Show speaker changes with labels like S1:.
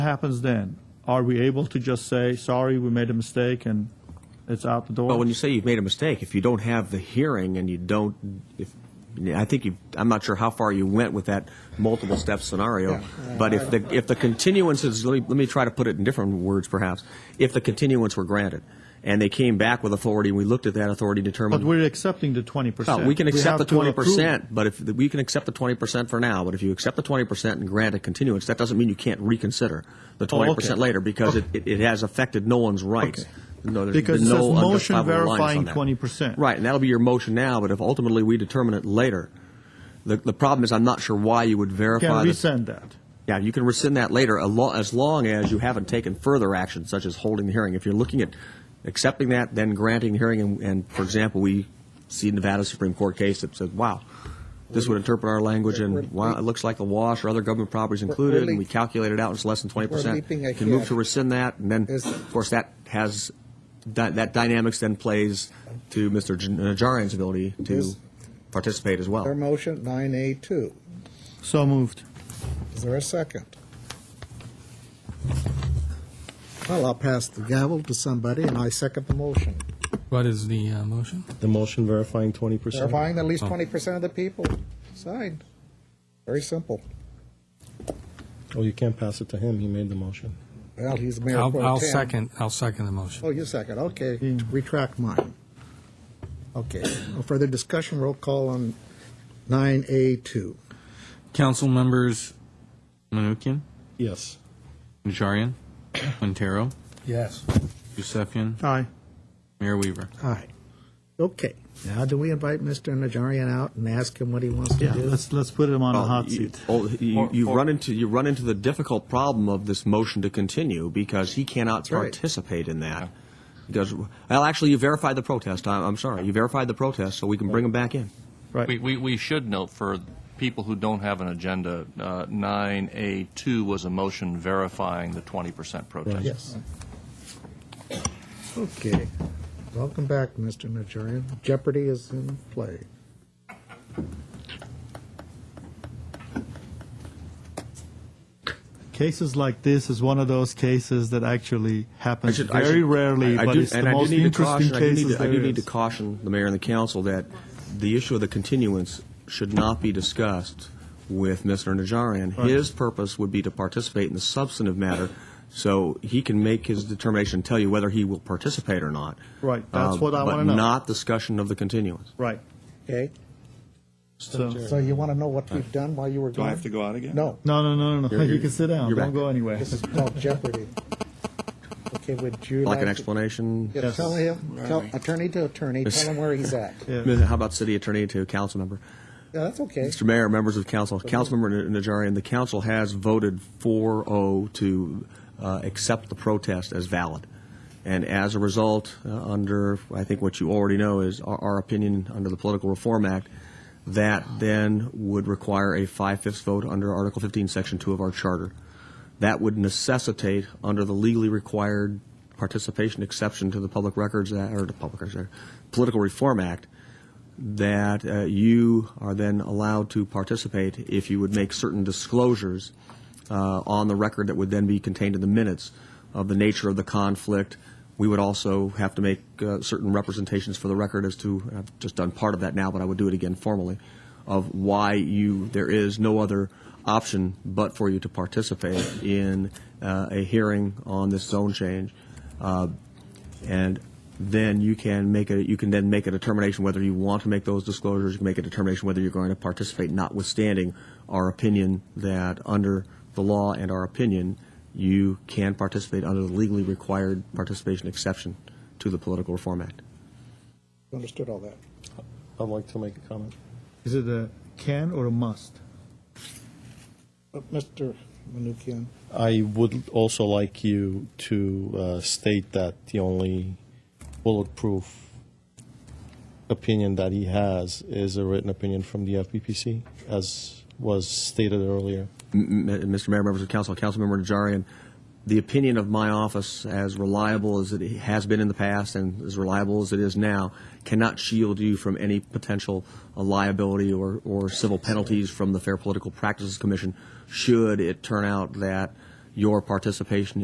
S1: happens then? Are we able to just say, sorry, we made a mistake and it's out the door?
S2: Well, when you say you've made a mistake, if you don't have the hearing and you don't, if, I think you, I'm not sure how far you went with that multiple step scenario, but if the, if the continuance is, let me, let me try to put it in different words perhaps, if the continuance were granted and they came back with authority and we looked at that authority and
S1: But
S2: determined.
S1: we're accepting the 20%.
S2: No, we can accept
S1: have
S2: the
S1: to
S2: twenty
S1: approve-
S2: percent, but if, we can accept the twenty percent for now, but if you accept the twenty percent and grant a continuance, that doesn't mean you can't reconsider
S1: Oh,
S2: the
S1: okay.
S2: twenty percent later, because it, it it has affected no one's rights.
S1: Okay.
S2: No, there's
S1: Because
S2: been
S1: it says
S2: no
S1: motion
S2: unjustifiable reliance on
S1: verifying
S2: that.
S1: 20%.
S2: Right, and that'll be your motion now, but if ultimately we determine it later, the, the problem is I'm not sure why you would
S1: Can
S2: verify. the-
S1: resend that.
S2: Yeah, you can rescind that later, a lo- as long as you haven't taken further action, such as holding the hearing. If you're looking at accepting that, then granting the hearing, and, and for example, we see Nevada Supreme Court case that said, wow, this would interpret our language, and wow, it looks like a wash, or other government properties included, and we calculate it out, and it's less than twenty
S3: We're
S2: percent.
S3: leaping
S2: You can move
S3: ahead.
S2: to rescind that, and then,
S3: Is-
S2: of course, that has, that, that dynamics then plays to Mr. Jan- Najarian's ability to
S3: Is-
S2: participate as well.
S3: Their motion, 9A2.
S1: So moved.
S3: Is there a second? Well, I'll pass the gavel to somebody, and I second the motion.
S4: What is the uh, motion?
S5: The motion verifying 20%.
S3: Verifying that at
S4: Oh.
S3: least 20% of the people signed. Very simple.
S5: Oh, you can't pass it to him. He made the motion.
S3: Well, he's mayor pro
S4: I'll,
S3: tem.
S4: I'll second, I'll second the motion.
S3: Oh, you second, okay. Retract mine. Okay, no further discussion, roll call on 9A2.
S6: Council members Manukian,
S5: Yes.
S6: Najarian, Quintero,
S4: Yes.
S6: Yusefian,
S1: Aye.
S6: Mayor Weaver.
S3: Aye. Okay, now do we invite Mr. Najarian out and ask him what he wants to
S1: Yeah,
S3: do?
S1: let's, let's put him on a
S2: Well,
S1: hot
S2: you-
S1: seat.
S2: oh, You, you run into, you run into the difficult problem of this motion to continue because he cannot
S3: right.
S2: participate in that. Because, well, actually, you verified the protest. I, I'm sorry. You verified the protest, so we can bring him back in.
S7: We,
S1: Right.
S7: we, we should note for people who don't have an agenda, uh, 9A2 was a motion verifying the 20% protest.
S3: Yes. Okay. Welcome back, Mr. Najarian. Jeopardy is in play.
S1: Cases like this is one of those cases that actually happens
S2: I should- I
S1: very
S2: should-
S1: rarely,
S2: I- I
S1: but
S2: do-
S1: it's the
S2: and I do
S1: most
S2: need to
S1: interesting
S2: caution- I do need
S1: cases
S2: to- I
S1: there
S2: do need to
S1: is.
S2: caution the mayor and the council that the issue of the continuance should not be discussed with Mr. Najarian. His purpose would be to participate in the substantive matter, so he can make his determination, tell you whether he will participate or not.
S1: Right, that's
S2: Um,
S1: what I wanna know.
S2: But not discussion of the continuance.
S1: Right.
S3: Okay?
S1: So,
S3: So you want to know what we've done while you were gone?
S2: go out again?
S3: No,
S1: no, no, no, no, no.
S2: You're-
S1: You
S2: you're-
S1: can sit down.
S2: you're
S1: Don't
S2: back.
S1: go anywhere.
S3: this is called Jeopardy. Okay, would you like?
S2: Like an
S3: to-
S2: explanation?
S3: Yeah, Tell him, tell attorney to attorney, tell him where he's at. Yeah,
S2: How about city attorney to council member?
S3: that's okay.
S2: Mr. Mayor, members of council, Councilmember Najarian, the council has voted 4-0 to uh, accept the protest as valid. And as a result, uh, under, I think what you already know is our- our opinion under the Political Reform Act, that then would require a five-fifths vote under Article 15, Section 2 of our charter. That would necessitate, under the legally required participation exception to the Public Records, Act- or the Public Records, Act, Political Reform Act, that uh, you are then allowed to participate if you would make certain disclosures uh, on the record that would then be contained in the minutes of the nature of the conflict. We would also have to make uh, certain representations for the record as to, and I've just done part of that now, but I would do it again formally, of why you, there is no other option but for you to participate in uh, a hearing on this zone change. Uh, and then you can make a, you can then make a determination whether you want to make those disclosures, you can make a determination whether you're going to participate, notwithstanding our opinion that under the law and our opinion, you can participate under the legally required participation exception to the Political Reform Act.
S3: Understood all that.
S5: I'd like to make a comment.
S1: Is it a can or a must?
S3: But Mr. Menuchyan,
S5: I would also like you to uh, state that the only bulletproof opinion that he has is a written opinion from the FPPC, as was stated earlier.
S2: M- M- Mr. Mayor, members of council, Councilmember Najarian, the opinion of my office, as reliable as it has been in the past and as reliable as it is now, cannot shield you from any potential uh, liability or, or civil penalties from the Fair Political Practices Commission should it turn out that your participation